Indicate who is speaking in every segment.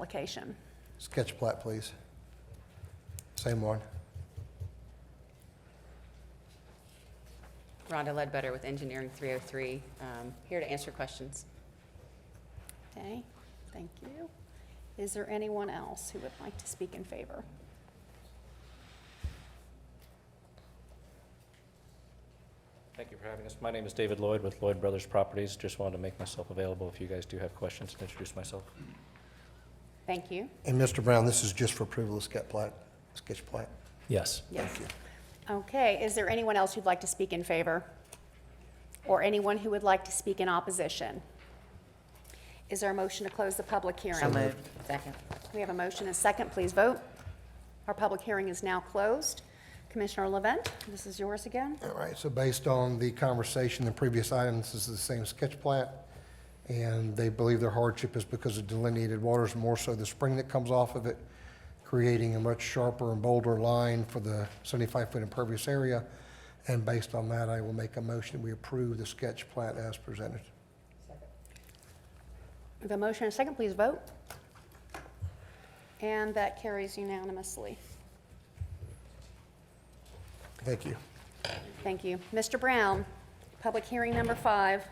Speaker 1: application.
Speaker 2: Sketch plat, please. Same one.
Speaker 3: Rhonda Ledbetter with Engineering 303, um, here to answer questions.
Speaker 1: Okay, thank you. Is there anyone else who would like to speak in favor?
Speaker 4: Thank you for having us. My name is David Lloyd with Lloyd Brothers Properties. Just wanted to make myself available if you guys do have questions and introduce myself.
Speaker 3: Thank you.
Speaker 2: And Mr. Brown, this is just for approval of sketch plat, sketch plat.
Speaker 4: Yes.
Speaker 1: Yes. Okay, is there anyone else who'd like to speak in favor? Or anyone who would like to speak in opposition? Is there a motion to close the public hearing?
Speaker 3: Second.
Speaker 1: We have a motion and a second, please vote. Our public hearing is now closed. Commissioner Levent, this is yours again.
Speaker 2: All right, so based on the conversation in previous items, this is the same sketch plat. And they believe their hardship is because of delineated waters, more so the spring that comes off of it, creating a much sharper and bolder line for the 75-foot impervious area. And based on that, I will make a motion, we approve the sketch plat as presented.
Speaker 1: We have a motion and a second, please vote. And that carries unanimously.
Speaker 2: Thank you.
Speaker 1: Thank you. Mr. Brown, public hearing number five.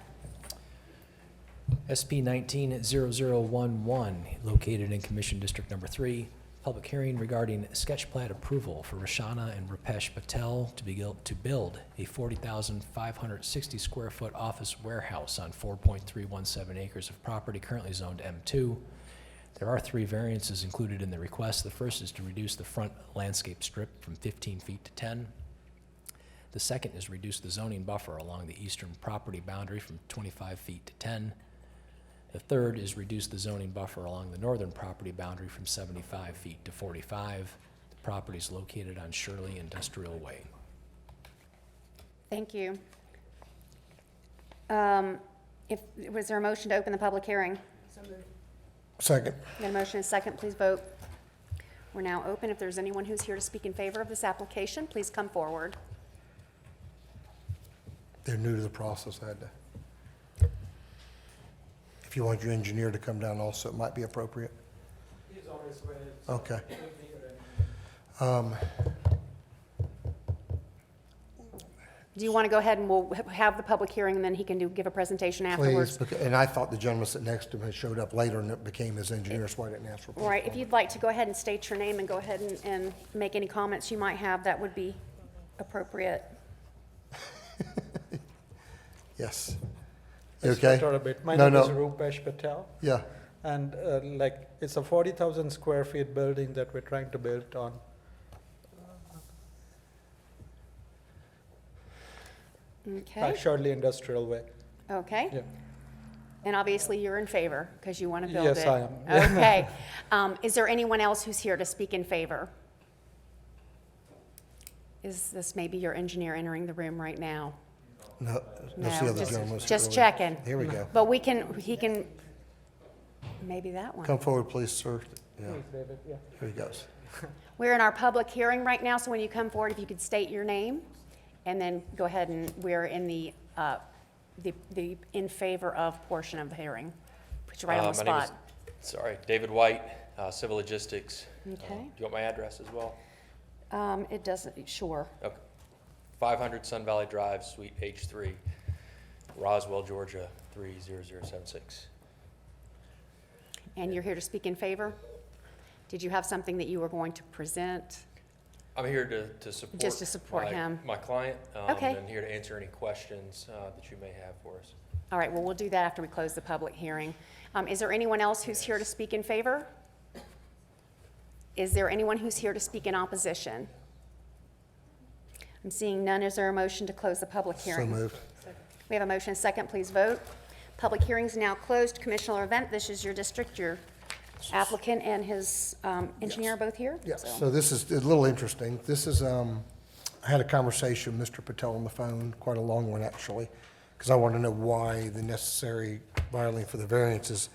Speaker 5: SP 190011, located in Commission District Number 3, public hearing regarding sketch plat approval for Rashana and Rupesh Patel to be, built- to build a 40,560 square foot office warehouse on 4.317 acres of property currently zoned M2. There are three variances included in the request. The first is to reduce the front landscape strip from 15 feet to 10. The second is reduce the zoning buffer along the eastern property boundary from 25 feet to 10. The third is reduce the zoning buffer along the northern property boundary from 75 feet to 45. The property is located on Shirley Industrial Way.
Speaker 1: Thank you. Um, If, was there a motion to open the public hearing?
Speaker 2: Second.
Speaker 1: Got a motion and a second, please vote. We're now open. If there's anyone who's here to speak in favor of this application, please come forward.
Speaker 2: They're new to the process, I had to. If you want your engineer to come down also, it might be appropriate. Okay. Um,
Speaker 1: Do you want to go ahead and we'll ha- have the public hearing, and then he can do, give a presentation
Speaker 2: Please,
Speaker 1: afterwards?
Speaker 2: beca- and I thought the gentleman sitting next to him had showed up later and it became his engineer, so I didn't ask for.
Speaker 1: All right, if you'd like to go ahead and state your name and go ahead and, and make any comments you might have, that would be appropriate.
Speaker 2: Yes. You
Speaker 6: Let's
Speaker 2: Okay?
Speaker 6: Start a bit. My
Speaker 2: No,
Speaker 6: name is
Speaker 2: no.
Speaker 6: Rupesh Patel,
Speaker 2: Yeah,
Speaker 6: and uh, like it's a forty thousand square feet building that we're trying to build on. by
Speaker 1: Okay,
Speaker 6: Shirley Industrial Way.
Speaker 1: okay?
Speaker 6: Yeah.
Speaker 1: And obviously, you're in favor, because you want to build it.
Speaker 6: Yes, I am.
Speaker 1: Okay. Um, Is there anyone else who's here to speak in favor? Is this maybe your engineer entering the room right now?
Speaker 2: no, that's the
Speaker 1: No,
Speaker 2: other
Speaker 1: just-
Speaker 2: gentleman. sitting
Speaker 1: Just
Speaker 2: over
Speaker 1: checking.
Speaker 2: there. Here we go.
Speaker 1: But we can, he can, maybe that one.
Speaker 2: Come forward, please, sir. Yeah,
Speaker 6: Please, David, yeah.
Speaker 2: here he goes.
Speaker 1: We're in our public hearing right now, so when you come forward, if you could state your name, and then go ahead and, we're in the, uh, the, the in favor of portion of the hearing. Put you right on the
Speaker 7: Uh, my name is-
Speaker 1: spot.
Speaker 7: Sorry, David White, uh, Civil Logistics. Uh,
Speaker 1: Okay.
Speaker 7: Do you want my address as well?
Speaker 1: Um, It doesn't, sure.
Speaker 7: Okay. 500 Sun Valley Drive, Suite H3, Roswell, Georgia, 30076.
Speaker 1: And you're here to speak in favor? Did you have something that you were going to present?
Speaker 7: I'm here to, to support.
Speaker 1: Just to support
Speaker 7: my-
Speaker 1: him.
Speaker 7: My client. um,
Speaker 1: Okay.
Speaker 7: And here to answer any questions uh, that you may have for us.
Speaker 1: All right, well, we'll do that after we close the public hearing. Um, Is there anyone else who's here to speak in favor? Is there anyone who's here to speak in opposition? I'm seeing none. Is there a motion to close the public
Speaker 2: So
Speaker 1: hearing?
Speaker 2: moved.
Speaker 1: We have a motion, and a second, please vote. Public hearing's now closed. Commissioner Event, this is your district, your applicant and his um, engineer are both here?
Speaker 2: Yeah,
Speaker 1: so-
Speaker 2: so this is a little interesting. This is, um, I had a conversation with Mr. Patel on the phone, quite a long one actually, because I wanted to know why the necessary filing for the variances.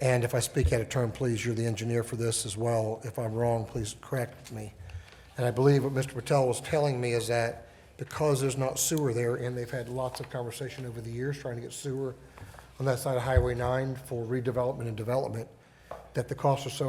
Speaker 2: And if I speak out of turn, please, you're the engineer for this as well. If I'm wrong, please correct me. And I believe what Mr. Patel was telling me is that because there's not sewer there, and they've had lots of conversation over the years trying to get sewer on that side of Highway 9 for redevelopment and development, that the costs are so